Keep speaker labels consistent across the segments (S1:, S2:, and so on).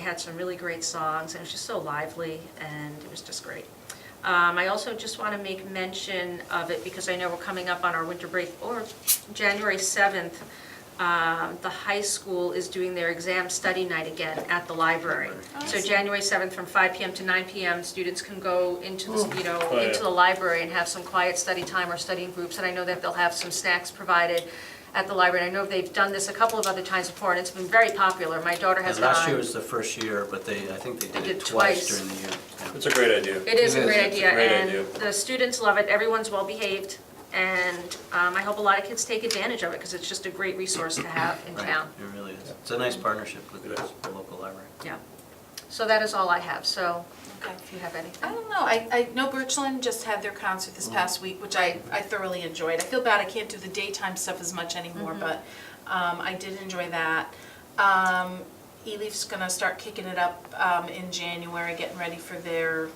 S1: had some really great songs, and it was just so lively, and it was just great. Um, I also just want to make mention of it, because I know we're coming up on our winter break, or January 7th, um, the high school is doing their exam study night again at the library.
S2: Oh,
S1: So January 7th, from 5 PM to 9 PM, students can go into, the you know,
S3: Oh, yeah.
S1: into the library and have some quiet study time or studying groups, and I know that they'll have some snacks provided at the library. And I know they've done this a couple of other times before, and it's been very popular. My daughter has
S2: And
S1: gone.
S2: last year was the first year, but they, I think they
S1: They
S2: did
S1: did
S2: it
S1: twice.
S2: twice during the year. yeah.
S3: It's a great idea.
S1: It is a
S4: It is.
S1: great
S4: It's a
S1: idea,
S3: great idea.
S1: and the students love it, everyone's well-behaved, and um, I hope a lot of kids take advantage of it, because it's just a great resource to have in
S2: Right,
S1: town.
S2: It really is. It's a nice partnership with
S3: It is.
S2: the local library.
S1: Yeah. So that is all I have, so
S4: Okay. Oh,
S1: if you have
S4: I
S1: anything.
S4: don't know, I, I know Birchland just had their concert
S5: Mm-hmm.
S4: this past week, which I, I thoroughly enjoyed. I feel bad I can't do the daytime stuff as much
S5: Mm-hmm.
S4: anymore, but um, I did enjoy that. Um, E-Leaf's gonna start kicking it up um, in January, getting ready for their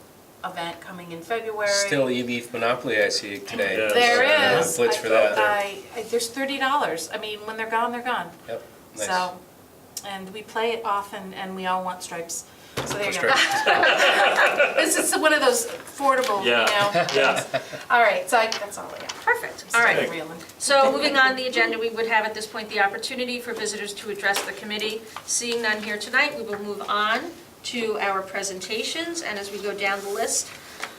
S4: event coming in February.
S5: Still E-Leaf Monopoly I see today.
S3: Yeah.
S4: There
S5: Yeah,
S4: is.
S5: blitz
S4: I-
S5: for that.
S4: I, I- there's thirty dollars, I mean, when they're gone, they're gone.
S5: Yep, nice.
S4: So, and we play it often, and we all want stripes, so there you go.
S5: Stripes.
S4: This is one of those affordable, you
S3: Yeah.
S4: know?
S3: Yeah.
S4: All right, so I, that's all I got.
S1: Perfect, all right.
S4: Still reeling.
S1: So moving on the agenda, we would have at this point the opportunity for visitors to address the committee. Seeing none here tonight, we will move on to our presentations, and as we go down the list,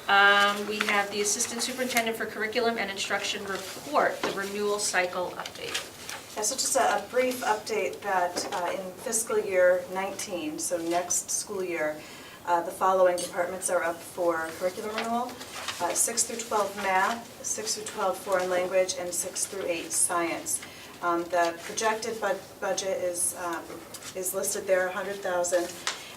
S1: um, we have the Assistant Superintendent for Curriculum and Instruction Report, the renewal cycle update.
S6: Yeah, so just a a brief update that uh, in fiscal year 19, so next school year, uh, the following departments are up for curriculum renewal. Uh, 6 through 12 math, 6 through 12 foreign language, and 6 through 8 science. Um, The projected bud- budget is, um, is listed there, 100,000.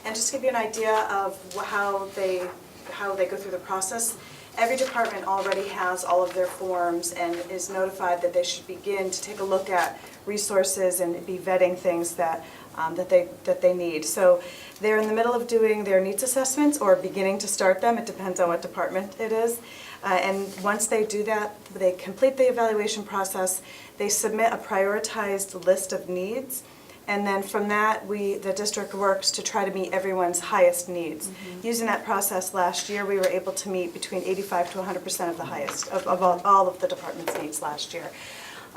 S6: And just to give you an idea of wh- how they, how they go through the process, every department already has all of their forms and is notified that they should begin to take a look at resources and be vetting things that, um, that they, that they need. So they're in the middle of doing their needs assessments or beginning to start them, it depends on what department it is. Uh, And once they do that, they complete the evaluation process, they submit a prioritized list of needs. And then from that, we, the district works to try to meet everyone's highest needs. Using that process last year, we were able to meet between 85 to 100% of the highest, of, of all, all of the department's needs last year.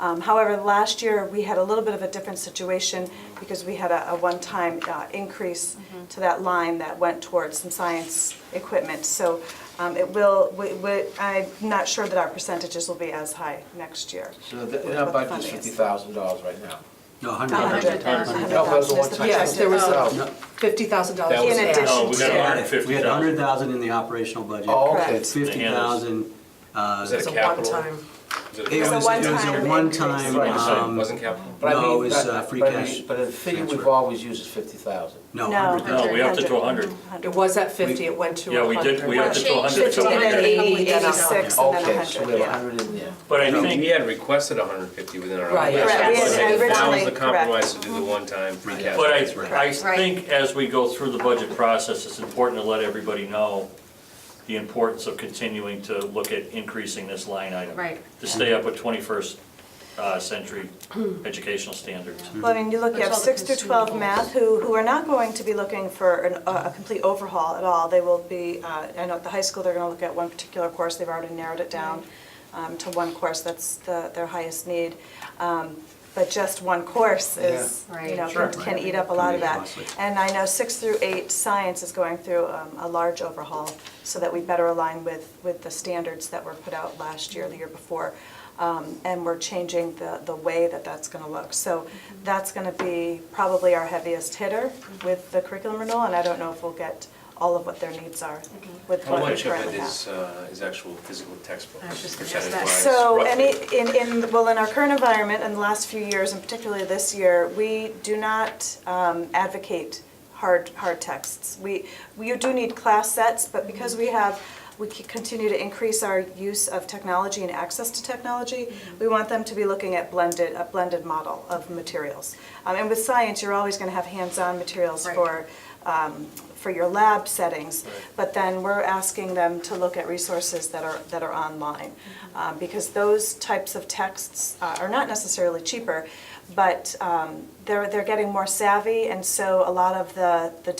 S6: Um, however, last year, we had a little bit of a different situation because we had a, a one-time uh, increase to that line that went towards some science equipment. So um, it will, we, we, I'm not sure that our percentages will be as high next year.
S7: So th- that budget's fifty thousand dollars right now.
S2: No, 100.
S6: $100,000.
S7: No, that was a one-time.
S6: Yes, there was a
S2: No,
S6: fifty thousand dollars
S5: That was-
S6: in
S5: No,
S6: addition
S3: No,
S6: to
S3: we got
S6: that.
S3: hundred and fifty
S2: We had
S3: thousand.
S2: 100,000 in the operational budget.
S7: Oh, okay.
S6: Correct.
S2: 50,000. uh,
S5: Was it a
S6: a
S5: capital?
S6: one-time.
S5: Was it a
S2: It was,
S6: a
S2: it
S5: capital?
S2: was a
S6: one-time
S2: one-time,
S7: increase.
S5: You said it
S2: um,
S5: Wasn't capital?
S7: But I
S2: No,
S7: mean,
S2: it was,
S7: that-
S2: uh, free
S7: but I mean-
S2: cash
S7: But the figure we've
S2: transfer.
S7: always used is fifty thousand.
S2: no,
S6: No.
S2: 100,000.
S3: No, Oh, we upped it to a hundred.
S8: It was at 50, it went to
S3: Yeah, we
S8: 100.
S3: did, we
S1: Well,
S3: upped it to
S1: change
S3: a hundred.
S1: fifty
S3: so we
S1: and then
S3: did.
S6: eighty. and then
S7: Okay, so we
S6: 100,
S7: have a
S6: yeah.
S7: hundred in there.
S3: But I
S5: No,
S3: think,
S5: We had requested 150 within our
S8: Right.
S5: last
S6: Correct.
S5: budget.
S6: Yes,
S5: That was the
S6: originally, correct.
S5: compromise to do the one-time free cash.
S3: But
S5: That's right.
S3: I, I
S1: Right.
S3: think as we go through the budget process, it's important to let everybody know the importance of continuing to look at increasing this line item.
S1: Right.
S3: To stay up with twenty-first uh, century educational standards.
S6: Well, I mean, you look, you
S1: There's
S6: have
S1: all the
S6: six through twelve
S1: consumables.
S6: math, who, who are not going to be looking for an, a a complete overhaul at all. They will be, uh, I know at the high school, they're gonna look at one particular course, they've already narrowed it down um, to one course, that's the, their highest need. Um, But just one course is,
S1: Yeah.
S6: you know,
S1: Right.
S6: can
S2: Sure.
S6: can eat up a lot
S2: Can
S6: of
S2: be
S6: that.
S2: costly.
S6: And I know six through eight, science is going through um, a large overhaul so that we better align with, with the standards that were put out last year, the year before. Um, And we're changing the, the way that that's going to look. So that's going to be probably our heaviest hitter with the curriculum renewal, and I don't know if we'll get all of what their needs are with
S5: How
S6: what we
S5: much of it
S6: currently have.
S5: is, uh, is actual physical textbooks?
S1: I was just gonna ask that.
S5: percentage-wise,
S6: So,
S5: roughly?
S6: any, in, in, well, in our current environment, in the last few years, and particularly this year, we do not um, advocate hard, hard texts. We, we do need class sets, but because we have, we c- continue to increase our use of technology and access to technology, we want them to be looking at blended, a blended model of materials. Um, And with science, you're always gonna have hands-on materials
S1: Right.
S6: for for your lab settings, but then we're asking them to look at resources that are, that are online. Um, Because those types of texts uh, are not necessarily cheaper, but um, they're, they're getting more savvy, and so a lot of the, the